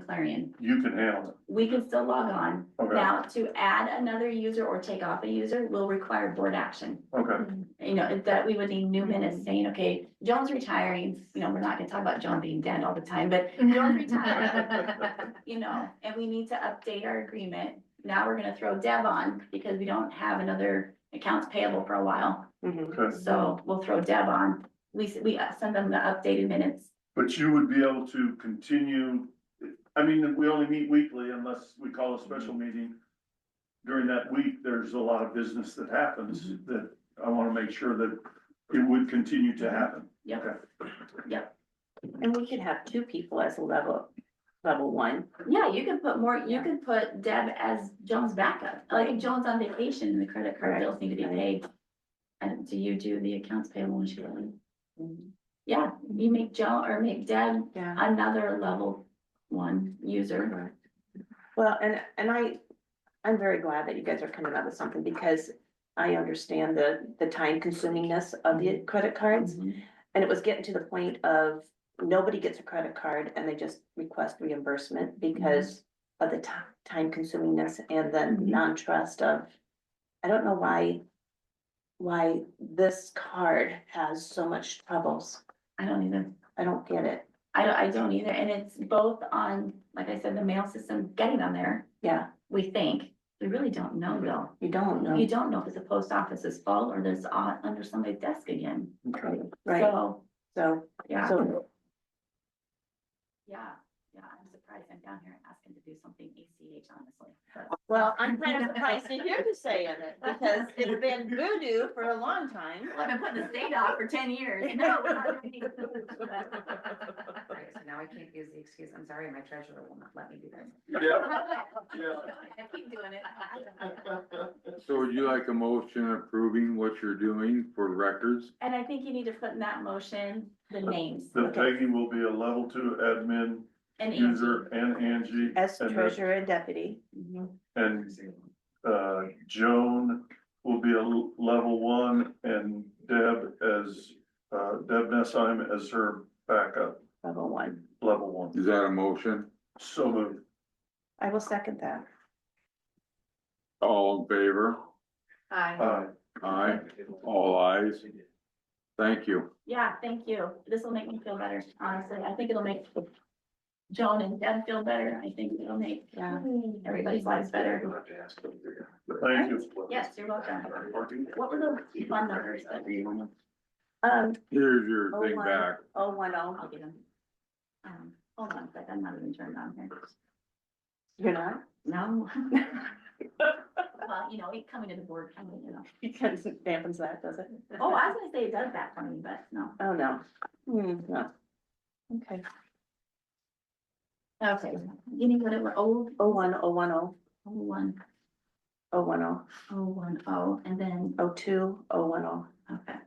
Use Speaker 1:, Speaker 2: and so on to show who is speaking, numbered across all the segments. Speaker 1: Clarion,
Speaker 2: You can handle it.
Speaker 1: we can still log on.
Speaker 2: Okay.
Speaker 1: Now, to add another user or take off a user will require board action.
Speaker 2: Okay,
Speaker 1: You know, that we would need new minutes saying, okay, Joan's retiring, you know, we're not gonna talk about Joan being dead all the time, but Joan's retiring. You know, and we need to update our agreement. Now we're gonna throw Deb on because we don't have another accounts payable for a while.
Speaker 3: Mm-hmm.
Speaker 2: okay.
Speaker 1: So we'll throw Deb on. We, s- we uh, send them the updated minutes.
Speaker 2: But you would be able to continue, I mean, we only meet weekly unless we call a special meeting. During that week, there's a lot of business that happens that I want to make sure that it would continue to happen.
Speaker 1: Yep,
Speaker 3: And we could have two people as a level, level one.
Speaker 1: yeah, you could put more, you could put Deb as Joan's backup. Like if Joan's on vacation and the credit card bills need to be paid. And do you do the accounts payable when she leaves?
Speaker 3: Mm-hmm.
Speaker 1: Yeah, you make Joan or make Deb
Speaker 3: Yeah.
Speaker 1: another level one user.
Speaker 3: Well, and, and I, I'm very glad that you guys are coming up with something because I understand the, the time consumingness of the credit cards.
Speaker 1: Mm-hmm.
Speaker 3: And it was getting to the point of nobody gets a credit card and they just request reimbursement because of the ti- time consumingness and the
Speaker 1: Mhm.
Speaker 3: non-trust of, I don't know why, why this card has so much troubles.
Speaker 1: I don't either.
Speaker 3: I don't get it.
Speaker 1: I don't, I don't either. And it's both on, like I said, the mail system getting them there,
Speaker 3: Yeah,
Speaker 1: we think. We really don't know though.
Speaker 3: you don't
Speaker 1: You
Speaker 3: know,
Speaker 1: don't know if it's the post office's fault or there's on, under somebody's desk again.
Speaker 2: Okay.
Speaker 3: right?
Speaker 1: So,
Speaker 3: So,
Speaker 1: yeah,
Speaker 3: so,
Speaker 1: yeah, yeah, I'm surprised I'm down here asking to do something ACH honestly. but-
Speaker 3: well, I'm kind of surprised to hear you saying it because it's been voodoo for a long time.
Speaker 1: Well, I've been putting the state off for ten years. No, we're not doing
Speaker 4: Right, so now I can't use the excuse, I'm sorry, my treasurer will not let me do that.
Speaker 2: Yeah.
Speaker 1: it. I keep doing it.
Speaker 5: So would you like a motion approving what you're doing for records?
Speaker 1: And I think you need to put in that motion, the names
Speaker 2: The Peggy will be a level two admin
Speaker 1: and
Speaker 2: user
Speaker 1: Angie.
Speaker 2: and Angie.
Speaker 3: As
Speaker 2: and the-
Speaker 3: treasurer and deputy,
Speaker 1: Mhm.
Speaker 2: And uh, Joan will be a l- level one and Deb as, uh, Deb Nessheim as her backup,
Speaker 3: level one.
Speaker 2: level one.
Speaker 5: Is that a motion?
Speaker 2: So moved.
Speaker 3: I will second that.
Speaker 5: All in favor?
Speaker 4: Hi.
Speaker 2: Aye.
Speaker 5: Aye, all ayes. Thank you.
Speaker 1: Yeah, thank you. This will make me feel better, honestly. I think it'll make Joan and Deb feel better. I think it'll make
Speaker 3: Yeah.
Speaker 1: everybody's lives better.
Speaker 2: Thank you.
Speaker 1: Yes, you're welcome. What were the fun numbers that you wanted?
Speaker 3: Um,
Speaker 5: Here's your
Speaker 3: Oh,
Speaker 5: thing
Speaker 3: wow.
Speaker 5: back.
Speaker 3: oh, one,
Speaker 1: I'll
Speaker 3: oh,
Speaker 1: get them. Um, hold on a sec, I'm not even turned on here.
Speaker 3: you're not?
Speaker 1: No. Well, you know, it coming to the board, coming, you know.
Speaker 3: Because it dampens that, does it?
Speaker 1: Oh, I was gonna say it does that for me, but no.
Speaker 3: Oh, no. Hmm, no. Okay,
Speaker 1: Okay, give me whatever, oh,
Speaker 3: oh, one, oh, one, oh,
Speaker 1: oh, one,
Speaker 3: oh, one, oh,
Speaker 1: oh, one, oh, and then,
Speaker 3: oh, two, oh, one, oh.
Speaker 1: okay.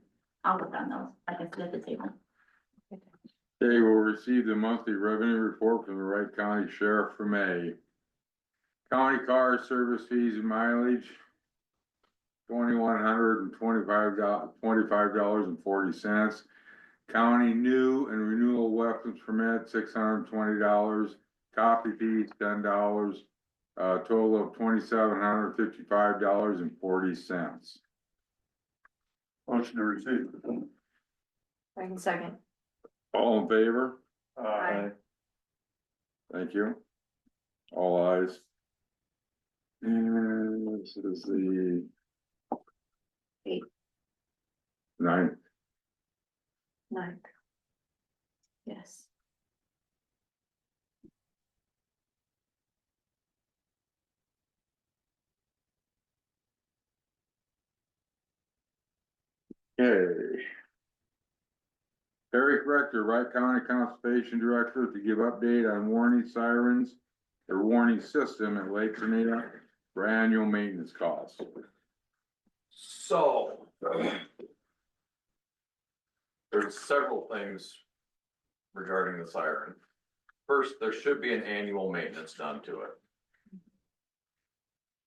Speaker 1: I'll look on those, I guess, at the table.
Speaker 5: They will receive the monthly revenue report from the Wright County Sheriff for May. County car service fees and mileage. Twenty-one hundred and twenty-five dollars, twenty-five dollars and forty cents. County new and renewal weapons permit, six hundred and twenty dollars. Copy fees, ten dollars. A total of twenty-seven hundred and fifty-five dollars and forty cents.
Speaker 2: Motion to receive.
Speaker 4: Second.
Speaker 5: All in favor?
Speaker 2: Aye.
Speaker 5: Thank you. All eyes. And this is the.
Speaker 3: Eight.
Speaker 5: Nine,
Speaker 3: Ninth. Yes.
Speaker 5: okay. Eric Rector, Wright County Conservation Director, to give update on warning sirens, their warning system at Lake Tenino for annual maintenance costs.
Speaker 6: So. There's several things regarding the siren. First, there should be an annual maintenance done to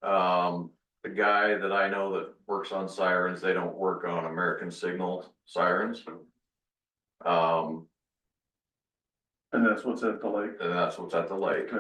Speaker 6: it. Um, the guy that I know that works on sirens, they don't work on American Signal sirens. Um,
Speaker 2: And that's what's at the lake.
Speaker 6: and that's what's at the lake.